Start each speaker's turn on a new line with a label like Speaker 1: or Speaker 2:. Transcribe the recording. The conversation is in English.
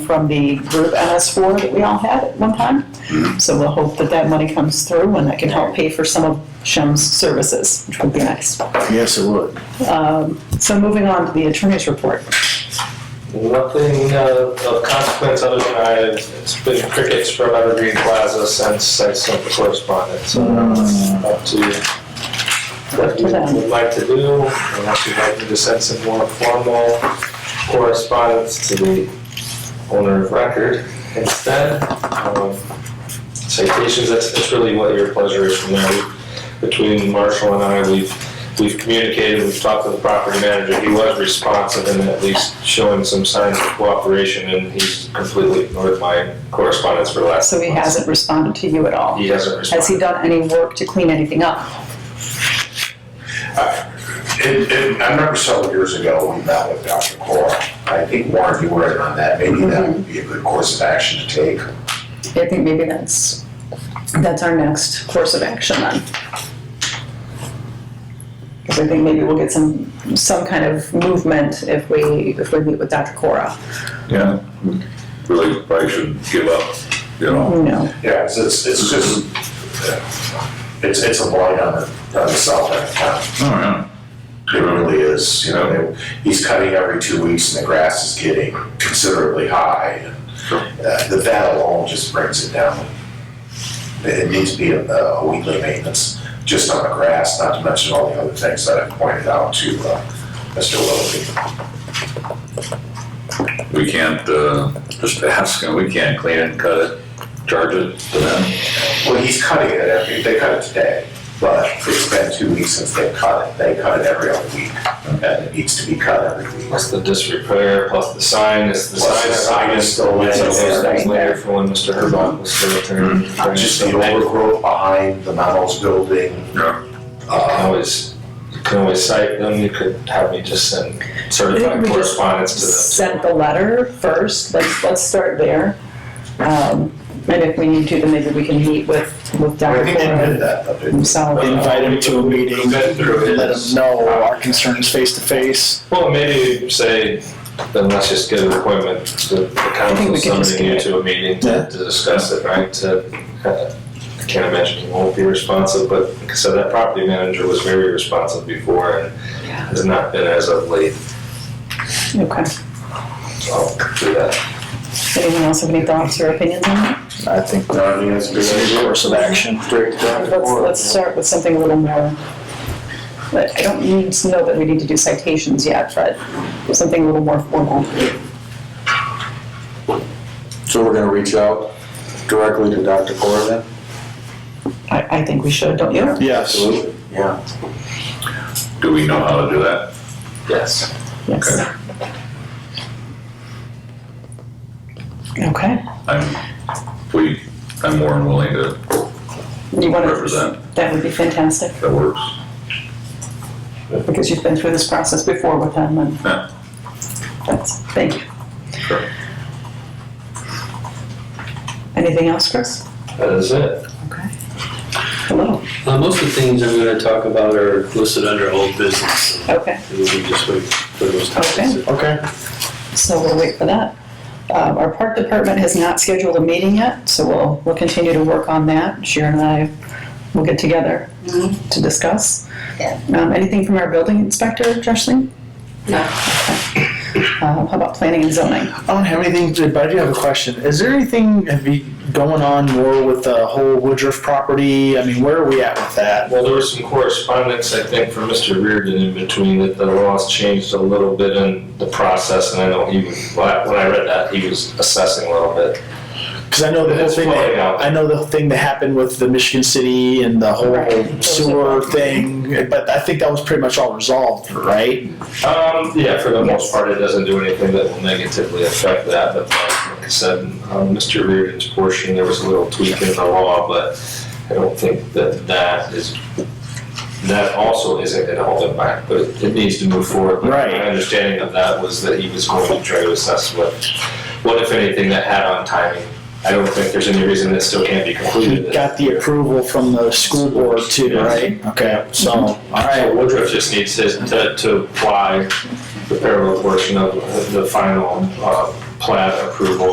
Speaker 1: from the group MS4 that we all had at one time. So we'll hope that that money comes through and that can help pay for some of Shem's services, which would be nice. Um,
Speaker 2: Yes, it would.
Speaker 1: So moving on to the attorney's report.
Speaker 3: Nothing uh, of consequence other than I, it's been crickets from Evergreen Plaza since I sent the correspondence. So uh, up to what you would like to do, unless you'd like me to send some more formal correspondence to the owner of record instead. Um, Citations, that's, that's really what your pleasure is from there. We- Between Marshall and I, we've we've communicated, we've talked to the property manager, he was responsive and at least showing some signs of cooperation, and he's completely ignored my correspondence for the last.
Speaker 1: So he
Speaker 3: month.
Speaker 1: hasn't responded to you at all.
Speaker 3: He hasn't
Speaker 1: Has he
Speaker 3: responded.
Speaker 1: done any work to clean anything up?
Speaker 4: It, it, I remember several years ago, we met with Dr. Cora. I think Warren, you were in on that. Maybe that would be a good course of action to take.
Speaker 1: I think maybe that's, that's our next course of action then. Because I think maybe we'll get some, some kind of movement if we, if we meet with Dr. Cora.
Speaker 5: Yeah, really probably shouldn't give up, you know?
Speaker 1: Who knows?
Speaker 4: Yeah, it's, it's it's just, it's, it's a blight on the, on the south end of town.
Speaker 5: Oh, yeah.
Speaker 4: It really is, you know, he's cutting every two weeks and the grass is getting considerably high.
Speaker 5: Sure.
Speaker 4: and uh, The that alone just brings it down. It it needs to be a a weekly maintenance, just on the grass, not to mention all the other things that I pointed out to uh, Mr. Willoughby.
Speaker 5: We can't, uh, just ask him, we can't clean it, cut it, charge it to them.
Speaker 4: Well, he's cutting it every, they cut it today, but it's been two weeks since they cut it. They cut it every other week, and it needs to be cut every week.
Speaker 3: Plus the disrepair, plus the sign, is the
Speaker 4: Plus
Speaker 3: sign.
Speaker 4: the sign is still
Speaker 3: It's
Speaker 4: laying
Speaker 3: all those
Speaker 4: there.
Speaker 3: things Later for when Mr. Herbach was still attorney.
Speaker 4: Just the
Speaker 3: So that-
Speaker 4: overgrowth behind the Mammals building,
Speaker 5: Yeah.
Speaker 3: You can
Speaker 4: uh,
Speaker 3: always, you can always cite them, you could have me just send certified
Speaker 1: we just
Speaker 3: correspondence to them.
Speaker 1: sent the letter first, let's, let's start there. Um, And if we need to, then maybe we can meet with, with
Speaker 4: I
Speaker 1: Dr.
Speaker 4: think they
Speaker 1: Cora
Speaker 4: did that, but they-
Speaker 1: himself.
Speaker 6: invite him to a
Speaker 3: We've
Speaker 6: meeting,
Speaker 3: been through it.
Speaker 6: let him know our concerns face to face.
Speaker 3: Well, maybe say, then let's just get an appointment, the the
Speaker 1: think
Speaker 3: council
Speaker 1: we could just
Speaker 3: summoning you
Speaker 1: get
Speaker 3: to a meeting to to discuss it, right? To- uh, I can't imagine he won't be responsive, but, like I said, that property manager was very responsive before and
Speaker 1: Yeah.
Speaker 3: has not been as of late,
Speaker 1: Okay.
Speaker 3: so I'll do that.
Speaker 1: Anyone else have any thoughts or opinions on that?
Speaker 6: I think
Speaker 4: No, I mean, it's a good
Speaker 6: that's a
Speaker 4: idea.
Speaker 6: course of action.
Speaker 1: Let's, let's start with something a little more, but I don't need to know that we need to do citations yet, but something a little more formal.
Speaker 7: So we're gonna reach out directly to Dr. Cora then?
Speaker 1: I, I think we should, don't you?
Speaker 6: Yes,
Speaker 7: Yeah.
Speaker 5: Do we know how to do that?
Speaker 3: Yes.
Speaker 1: Yes. Okay.
Speaker 5: I'm, we, I'm more than willing to
Speaker 1: You want to,
Speaker 5: represent,
Speaker 1: that would be fantastic.
Speaker 5: that works.
Speaker 1: because you've been through this process before with them and
Speaker 5: Yeah.
Speaker 1: that's, thank you.
Speaker 5: Sure.
Speaker 1: Anything else, Chris?
Speaker 3: That is it.
Speaker 1: Okay. Hello,
Speaker 8: Uh, Most of the things I'm going to talk about are listed under old business.
Speaker 1: okay,
Speaker 8: We'll just wait for those topics.
Speaker 1: Okay.
Speaker 6: okay.
Speaker 1: so we'll wait for that. Um, our park department has not scheduled a meeting yet, so we'll, we'll continue to work on that. Sharon and I will get together to discuss. Um, anything from our building inspector, Jocelyn?
Speaker 9: No.
Speaker 1: Um, how about planning and zoning?
Speaker 6: I don't have anything, to- but I do have a question. Is there anything, have you going on more with the whole Woodruff property? I mean, where are we at with that?
Speaker 3: Well, there was some correspondence, I think, from Mr. Reardon in between that the laws changed a little bit in the process, and I know he, was- when I when I read that, he was assessing a little bit.
Speaker 6: Because I know the whole
Speaker 3: It's
Speaker 6: thing,
Speaker 3: flowing
Speaker 6: that-
Speaker 3: out.
Speaker 6: I know the thing that happened with the Michigan City and the whole
Speaker 1: Right.
Speaker 6: sewer thing, but I think that was pretty much all resolved, right?
Speaker 3: Um, yeah, for the most part, it doesn't do anything that will negatively affect that, but like like I said, um, Mr. Reardon's portion, there was a little tweak in the law, but I don't think that that is, that also isn't gonna hold it back, but it it needs to move forward. But
Speaker 6: Right.
Speaker 3: My understanding of that was that he was going to try to assess what, what if anything that had on timing. I don't think there's any reason that still can't be
Speaker 6: We
Speaker 3: completed.
Speaker 6: got the approval from the school board too,
Speaker 3: Yes.
Speaker 6: right? Okay, so, all
Speaker 3: So
Speaker 6: right,
Speaker 3: Woodruff just needs his, to, to apply the parallel portion of the final, uh, plat approval